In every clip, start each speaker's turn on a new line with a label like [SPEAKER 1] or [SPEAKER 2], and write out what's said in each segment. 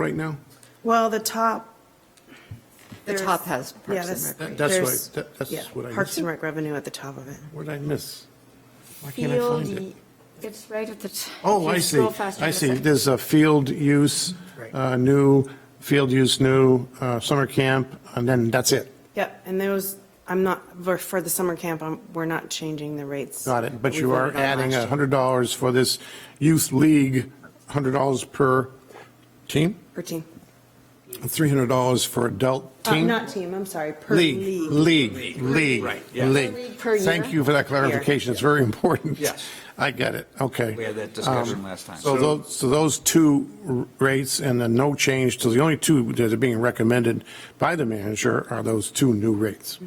[SPEAKER 1] right now?
[SPEAKER 2] Well, the top.
[SPEAKER 3] The
[SPEAKER 2] there's-
[SPEAKER 3] top has Parks
[SPEAKER 2] yeah,
[SPEAKER 3] and
[SPEAKER 2] that's-
[SPEAKER 3] Rec.
[SPEAKER 1] That- That's
[SPEAKER 2] there's-
[SPEAKER 1] what, I- that-
[SPEAKER 2] yeah,
[SPEAKER 1] that's what I
[SPEAKER 2] Parks
[SPEAKER 1] missed.
[SPEAKER 2] and Rec revenue at the top of it.
[SPEAKER 1] What did I miss? Why can't I
[SPEAKER 4] Field,
[SPEAKER 1] find it?
[SPEAKER 4] it's right at the. t-
[SPEAKER 1] Oh,
[SPEAKER 4] if
[SPEAKER 1] I
[SPEAKER 4] you
[SPEAKER 1] see,
[SPEAKER 4] scroll faster,
[SPEAKER 1] I
[SPEAKER 4] it's
[SPEAKER 1] see.
[SPEAKER 4] like-
[SPEAKER 1] There's a field use, uh, new, field use, new, uh, summer camp, and then that's it.
[SPEAKER 2] Yep, and those, I'm not, for- for the summer camp, I'm- we're not changing the rates.
[SPEAKER 1] Got it, but
[SPEAKER 2] that we
[SPEAKER 1] you are
[SPEAKER 2] voted on
[SPEAKER 1] adding
[SPEAKER 2] last
[SPEAKER 1] a
[SPEAKER 2] year.
[SPEAKER 1] hundred dollars for this youth league, hundred dollars per team,
[SPEAKER 2] Per team.
[SPEAKER 1] three hundred dollars for adult
[SPEAKER 2] Uh,
[SPEAKER 1] team?
[SPEAKER 2] Not team, I'm sorry, per
[SPEAKER 1] League, league,
[SPEAKER 2] league.
[SPEAKER 1] league, league.
[SPEAKER 4] League per year?
[SPEAKER 1] Thank you for that clarification, it's very important.
[SPEAKER 5] Yes.
[SPEAKER 1] I get it, okay. Um,
[SPEAKER 5] We had that discussion last time.
[SPEAKER 1] So those, so those two r- rates and the no change, to the only two that are being recommended by the manager are those two new rates.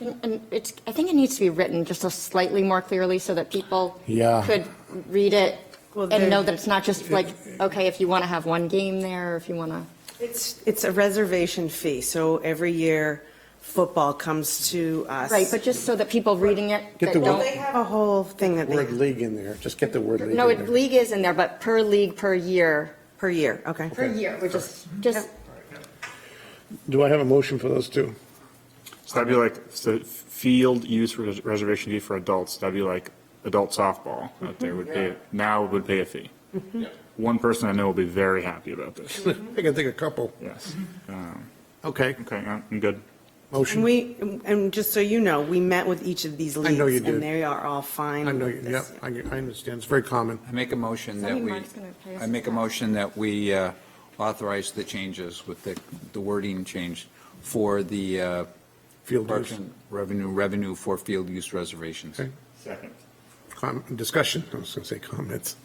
[SPEAKER 4] And it's, I think it needs to be written just a slightly more clearly so that people.
[SPEAKER 1] Yeah.
[SPEAKER 4] Could read it
[SPEAKER 2] Well,
[SPEAKER 4] and know
[SPEAKER 2] they're-
[SPEAKER 4] that it's not just like, okay, if you want to have one game there, or if you want to.
[SPEAKER 2] It's, it's a reservation fee, so every year football comes to us.
[SPEAKER 4] Right, but just so that people reading it
[SPEAKER 1] Get
[SPEAKER 4] that
[SPEAKER 1] the
[SPEAKER 2] Well,
[SPEAKER 1] word-
[SPEAKER 2] they
[SPEAKER 4] don't.
[SPEAKER 2] have a whole thing that
[SPEAKER 1] Word
[SPEAKER 2] they,
[SPEAKER 1] league in there, just get the word league in
[SPEAKER 4] No, it-
[SPEAKER 1] there.
[SPEAKER 4] league is in there, but per league, per year,
[SPEAKER 2] per year, okay.
[SPEAKER 4] per year, we're just, just
[SPEAKER 1] Do I have a motion for those two?
[SPEAKER 6] So that'd be like, so field use res- reservation fee for adults, that'd be like adult softball, that they would pay, now would pay a fee. One person I know will be very happy about this,
[SPEAKER 1] I can think of a couple.
[SPEAKER 6] yes. Um,
[SPEAKER 1] Okay,
[SPEAKER 6] Okay, I'm I'm good.
[SPEAKER 1] motion.
[SPEAKER 2] And we, and just so you know, we met with each of these
[SPEAKER 1] I
[SPEAKER 2] leagues.
[SPEAKER 1] know you did.
[SPEAKER 2] And they are all fine.
[SPEAKER 1] I know,
[SPEAKER 2] with
[SPEAKER 1] you-
[SPEAKER 2] this.
[SPEAKER 1] yep, I, I understand, it's very common.
[SPEAKER 5] I make a motion
[SPEAKER 4] Somebody
[SPEAKER 5] that we,
[SPEAKER 4] Mark's gonna pay us
[SPEAKER 5] I make a
[SPEAKER 4] back.
[SPEAKER 5] motion that we uh, authorize the changes with the, the wording change for the uh,
[SPEAKER 1] Field
[SPEAKER 5] Parks
[SPEAKER 1] use.
[SPEAKER 5] and revenue, revenue for field use reservations.
[SPEAKER 1] Okay.
[SPEAKER 6] Second.
[SPEAKER 1] Com- Discussion, I was gonna say comments,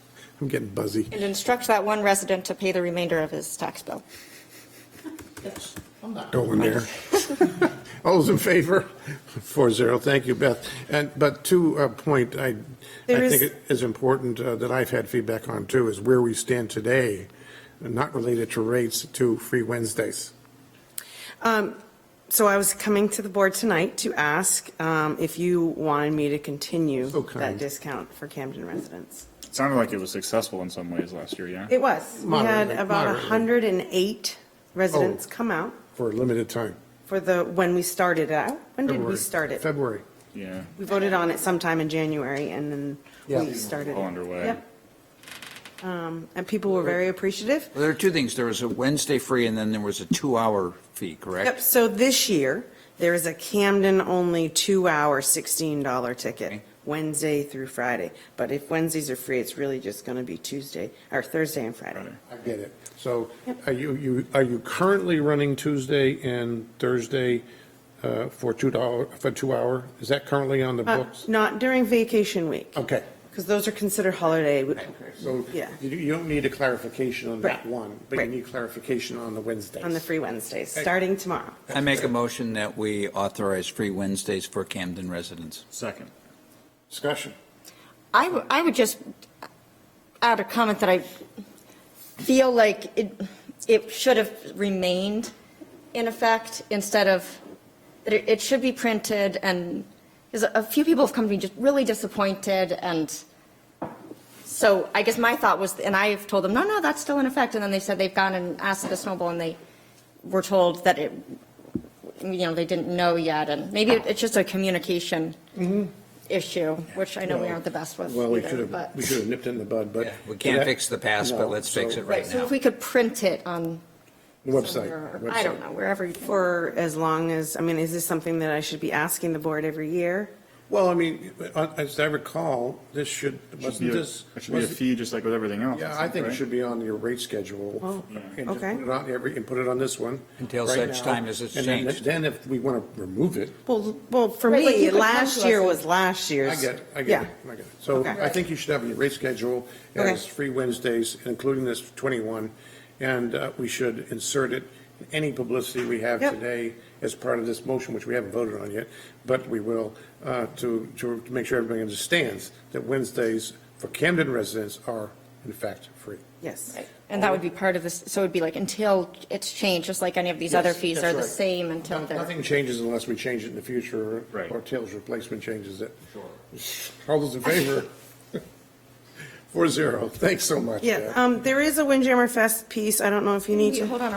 [SPEAKER 1] I'm getting buzzy.
[SPEAKER 4] and instruct that one resident to pay the remainder of his tax bill.
[SPEAKER 1] Going there. All those in favor? Four zero, thank you, Beth. And, but to a point, I,
[SPEAKER 2] There
[SPEAKER 1] I
[SPEAKER 2] is-
[SPEAKER 1] think it is important uh, that I've had feedback on too, is where we stand today, not related to rates, to free Wednesdays.
[SPEAKER 2] So I was coming to the board tonight to ask um, if you wanted me to continue
[SPEAKER 1] So kind.
[SPEAKER 2] that discount for Camden residents.
[SPEAKER 6] It Sounded like it was successful in some ways last year, yeah?
[SPEAKER 2] It was. We had
[SPEAKER 1] Moderately,
[SPEAKER 2] about
[SPEAKER 1] moderately.
[SPEAKER 2] 108 residents
[SPEAKER 1] Oh.
[SPEAKER 2] come out
[SPEAKER 1] For a limited time.
[SPEAKER 2] for the, when we started out. When did we
[SPEAKER 1] February.
[SPEAKER 2] start it?
[SPEAKER 1] February.
[SPEAKER 6] Yeah,
[SPEAKER 2] We voted on it sometime in January and then
[SPEAKER 1] Yeah.
[SPEAKER 2] we started.
[SPEAKER 6] All
[SPEAKER 2] it.
[SPEAKER 6] underway.
[SPEAKER 2] Yep. Um, And people were very appreciative.
[SPEAKER 5] Well, There are two things, there was a Wednesday free and then there was a two-hour fee,
[SPEAKER 2] Yep,
[SPEAKER 5] correct?
[SPEAKER 2] so this year, there is a Camden-only two-hour $16 ticket,
[SPEAKER 5] Okay.
[SPEAKER 2] Wednesday through Friday. But if Wednesdays are free, it's really just going to be Tuesday, or Thursday and Friday.
[SPEAKER 1] I get it. So are you, you, are you currently running Tuesday and Thursday uh, for two dollar, for two hour? Is that currently on the
[SPEAKER 2] Uh,
[SPEAKER 1] books?
[SPEAKER 2] Not during vacation week,
[SPEAKER 1] Okay.
[SPEAKER 2] because those are considered holiday. w-
[SPEAKER 1] So you,
[SPEAKER 2] Yeah,
[SPEAKER 1] you don't need a clarification on that
[SPEAKER 2] Right.
[SPEAKER 1] one, but you
[SPEAKER 2] Right.
[SPEAKER 1] need clarification on the Wednesdays.
[SPEAKER 2] on the free Wednesdays, starting tomorrow.
[SPEAKER 5] I make a motion that we authorize free Wednesdays for Camden residents.
[SPEAKER 6] Second.
[SPEAKER 1] Discussion.
[SPEAKER 4] I, w- I would just add a comment that I feel like it, it should have remained in effect instead of, that it, it should be printed and, because a few people have come to me just really disappointed and so I guess my thought was, and I've told them, no, no, that's still in effect. And then they said they've gone and asked the snowball and they were told that it, you know, they didn't know yet. And maybe it- it's just a communication issue, which I know we aren't the best with
[SPEAKER 1] Well, we
[SPEAKER 4] either,
[SPEAKER 1] should have,
[SPEAKER 4] but-
[SPEAKER 1] we should have nipped it in the bud, but.
[SPEAKER 5] Yeah, we can't fix the past, but
[SPEAKER 1] No,
[SPEAKER 5] let's
[SPEAKER 1] so-
[SPEAKER 5] fix it
[SPEAKER 4] Right,
[SPEAKER 5] right
[SPEAKER 4] so
[SPEAKER 5] now.
[SPEAKER 4] if we could print it on.
[SPEAKER 1] Website.
[SPEAKER 4] somewhere, I don't
[SPEAKER 1] website.
[SPEAKER 4] know, wherever, you- or
[SPEAKER 2] For as long as, I mean, is this something that I should be asking the board every year?
[SPEAKER 1] Well, I mean, uh, as I recall, this should, wasn't this?
[SPEAKER 6] It should be a
[SPEAKER 1] wasn't-
[SPEAKER 6] fee just like with everything else.
[SPEAKER 1] Yeah, I think it
[SPEAKER 6] right?
[SPEAKER 1] should be on your rate schedule.
[SPEAKER 2] Oh,
[SPEAKER 1] and just
[SPEAKER 2] okay.
[SPEAKER 1] put it on every- And put it on this one.
[SPEAKER 5] Until
[SPEAKER 1] right
[SPEAKER 5] such
[SPEAKER 1] now.
[SPEAKER 5] time as it's
[SPEAKER 1] And then-
[SPEAKER 5] changed.
[SPEAKER 1] Then if we want to remove it,
[SPEAKER 2] Well, well, for
[SPEAKER 4] Right, like you
[SPEAKER 2] me,
[SPEAKER 4] could come
[SPEAKER 2] last
[SPEAKER 4] to us
[SPEAKER 2] year
[SPEAKER 4] and-
[SPEAKER 2] was last year's.
[SPEAKER 1] I get, it, I get, it,
[SPEAKER 2] Yeah.
[SPEAKER 1] I get it. So
[SPEAKER 2] Okay.
[SPEAKER 1] I think you should have your rate schedule as
[SPEAKER 2] Okay.
[SPEAKER 1] free Wednesdays, including this 21, and uh, we should insert it in any publicity we have
[SPEAKER 2] Yep.
[SPEAKER 1] today as part of this motion, which we haven't voted on yet, but we will, uh, to, to make sure everybody understands that Wednesdays for Camden residents are in fact free.
[SPEAKER 2] Yes.
[SPEAKER 4] and that would be part of this, so it'd be like until it's changed, just like any of these other
[SPEAKER 1] Yes,
[SPEAKER 4] fees
[SPEAKER 1] that's
[SPEAKER 4] are the
[SPEAKER 1] right.
[SPEAKER 4] same until
[SPEAKER 1] No-
[SPEAKER 4] they're.
[SPEAKER 1] Nothing changes unless we change it in the future.
[SPEAKER 6] Right.
[SPEAKER 1] Or Tails replacement changes it. All those in favor? Four zero. Thanks so much.
[SPEAKER 2] Yeah,
[SPEAKER 1] Deb.
[SPEAKER 2] um, there is a Windjammer Fest piece, I don't know if you need to.
[SPEAKER 4] Hold on,